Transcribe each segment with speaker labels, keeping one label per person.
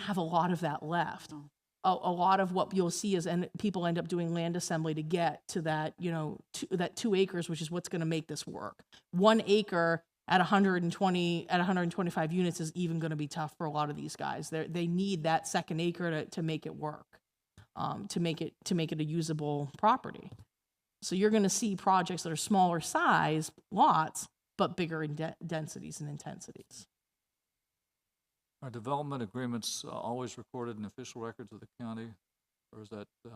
Speaker 1: have a lot of that left. A, a lot of what you'll see is, and people end up doing land assembly to get to that, you know, two, that two acres, which is what's going to make this work. One acre at 120 at 125 units is even going to be tough for a lot of these guys. They they need that second acre to to make it work, um, to make it to make it a usable property. So you're going to see projects that are smaller size lots, but bigger in de- densities and intensities.
Speaker 2: Are development agreements uh, always recorded in official records of the county? Or is that, uh,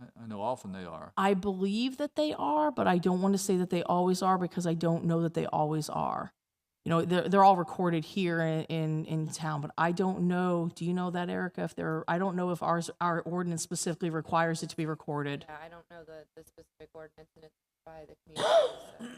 Speaker 2: I, I know often they are.
Speaker 1: I believe that they are, but I don't want to say that they always are because I don't know that they always are. You know, they're, they're all recorded here in, in, in town, but I don't know. Do you know that, Erica? If they're, I don't know if ours, our ordinance specifically requires it to be recorded.
Speaker 3: Yeah, I don't know the, the specific ordinance and it's by the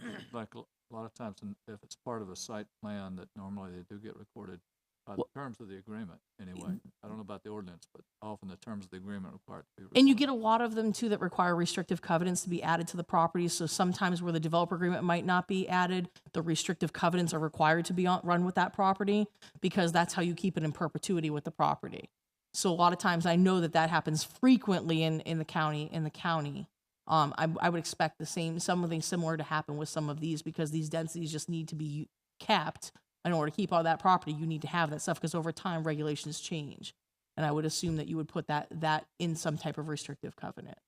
Speaker 3: community,
Speaker 2: Like, a lot of times, in- if it's part of a site plan, that normally they do get recorded by the
Speaker 1: Well-
Speaker 2: terms of the agreement, anyway. I don't know about the ordinance, but often the terms of the agreement require it to be recorded.
Speaker 1: And you get a lot of them too that require restrictive covenants to be added to the property. So sometimes where the developer agreement might not be added, the restrictive covenants are required to be on, run with that property because that's how you keep it in perpetuity with the property. So a lot of times I know that that happens frequently in, in the county, in the county. Um, I, I would expect the same, something similar to happen with some of these because these densities just need to be capped. In order to keep all that property, you need to have that stuff because over time regulations change. And I would assume that you would put that, that in some type of restrictive covenant.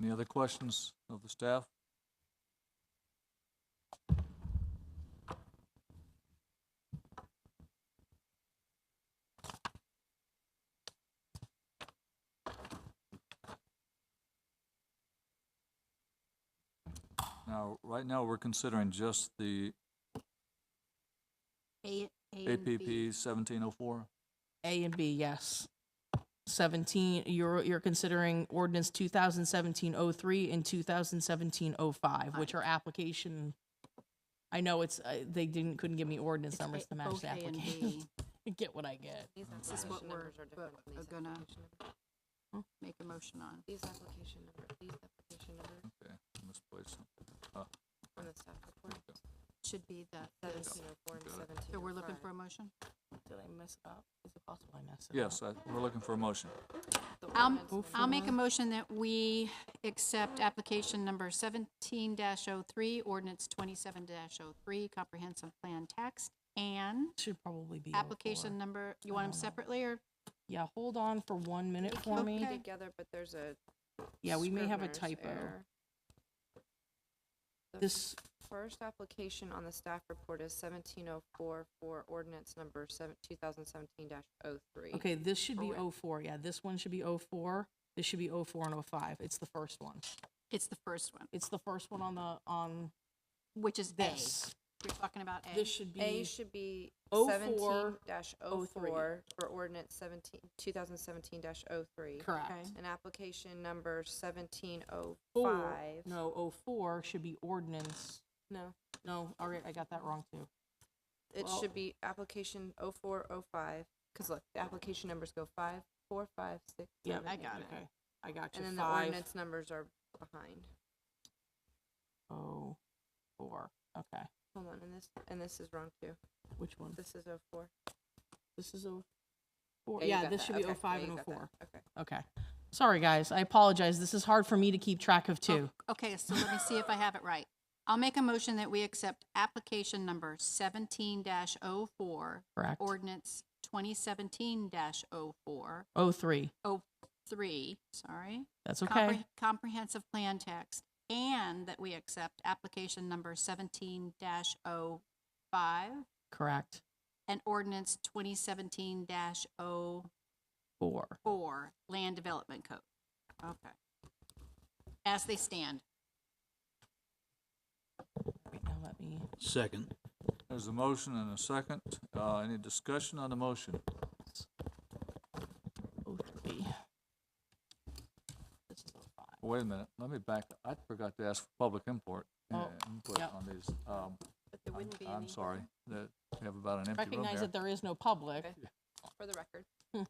Speaker 2: Any other questions of the staff? Now, right now, we're considering just the
Speaker 3: A, A
Speaker 2: APP seventeen oh four.
Speaker 1: A and B, yes. 17, you're, you're considering ordinance 2017-03 and 2017-05, which are application. I know it's, uh, they didn't, couldn't give me ordinance numbers to match the application. Get what I get.
Speaker 3: This
Speaker 4: This is what we're,
Speaker 3: different from
Speaker 4: are
Speaker 3: these
Speaker 4: gonna
Speaker 3: application numbers.
Speaker 4: make a motion on.
Speaker 3: These application number, these application number
Speaker 2: Okay, misplaced.
Speaker 3: from the staff report,
Speaker 4: Should be the, this.
Speaker 3: seventeen oh four and
Speaker 2: Got it.
Speaker 3: seventeen.
Speaker 4: So we're looking for a motion?
Speaker 1: Did I mess up? Is it possible I messed
Speaker 2: Yes, I- we're looking for a motion.
Speaker 4: I'll,
Speaker 1: Um,
Speaker 4: I'll make a motion that we accept application number seventeen 3 ordinance twenty-seven 3 comprehensive plan text, and
Speaker 1: Should probably be. 04.
Speaker 4: application number, you want them separately, or
Speaker 1: Yeah, hold on for one minute for me.
Speaker 4: okay.
Speaker 3: Together, but there's a.
Speaker 1: Yeah, we may have a
Speaker 3: scrivener's
Speaker 1: typo.
Speaker 3: error. The
Speaker 1: This,
Speaker 3: First application on the staff report is seventeen oh four for ordinance number seven, two thousand seventeen dash oh three.
Speaker 1: okay, this should be
Speaker 3: Correct.
Speaker 1: 04. Yeah, this one should be 04. This should be 04 and 05. It's the first one.
Speaker 4: it's the first one,
Speaker 1: It's the first one on the, on
Speaker 4: which is A.
Speaker 1: this.
Speaker 4: You're talking about A.
Speaker 1: This should
Speaker 3: A
Speaker 1: be,
Speaker 3: should be
Speaker 1: 04,
Speaker 3: seventeen dash oh four for ordinance seventeen, two thousand seventeen dash oh three.
Speaker 1: correct.
Speaker 3: And application number seventeen oh
Speaker 1: Four,
Speaker 3: five.
Speaker 1: no, 04 should be ordinance.
Speaker 3: No,
Speaker 1: No, all right, I got that wrong too.
Speaker 3: it
Speaker 1: Well-
Speaker 3: should be application oh four, oh five, because look, the application numbers go five, four, five, six,
Speaker 1: Yeah,
Speaker 3: seven,
Speaker 4: I
Speaker 3: eight,
Speaker 4: got it.
Speaker 3: nine.
Speaker 1: Okay, I got you.
Speaker 3: And then the
Speaker 1: Five,
Speaker 3: ordinance numbers are behind.
Speaker 1: oh, four. Okay,
Speaker 3: Hold on, and this, and this is wrong too.
Speaker 1: which one?
Speaker 3: This is oh four.
Speaker 1: This is 04.
Speaker 3: Yeah, you
Speaker 1: Yeah,
Speaker 3: got
Speaker 1: this
Speaker 3: that.
Speaker 1: should be
Speaker 3: Okay. Yeah,
Speaker 1: 05
Speaker 3: you
Speaker 1: and
Speaker 3: got that.
Speaker 1: 04.
Speaker 3: Okay.
Speaker 1: Okay. Sorry, guys. I apologize. This is hard for me to keep track of
Speaker 4: Oh,
Speaker 1: too.
Speaker 4: Okay, so let me see if I have it right. I'll make a motion that we accept application number seventeen oh 4
Speaker 1: Correct.
Speaker 4: ordinance twenty seventeen 4 oh four,
Speaker 1: 03.
Speaker 4: oh three, sorry.
Speaker 1: That's
Speaker 4: compre-
Speaker 1: okay.
Speaker 4: Comprehensive plan text, and that we accept application number seventeen 5
Speaker 1: Correct.
Speaker 4: and ordinance twenty seventeen 4
Speaker 1: Four.
Speaker 4: land development code. Okay. As they stand.
Speaker 1: Wait, now let me.
Speaker 5: Second.
Speaker 2: There's a motion and a second. Uh, any discussion on the motion?
Speaker 1: 03. This is 05.
Speaker 2: Wait a minute, let me back, I forgot to ask for public import, uh,
Speaker 1: Oh,
Speaker 2: input
Speaker 1: yep.
Speaker 2: on these. Um,
Speaker 3: But there
Speaker 2: I'm-
Speaker 3: wouldn't be any.
Speaker 2: I'm sorry, that we have about an empty room
Speaker 1: Recognize
Speaker 2: here.
Speaker 1: that there is no public.
Speaker 3: Okay. For the record.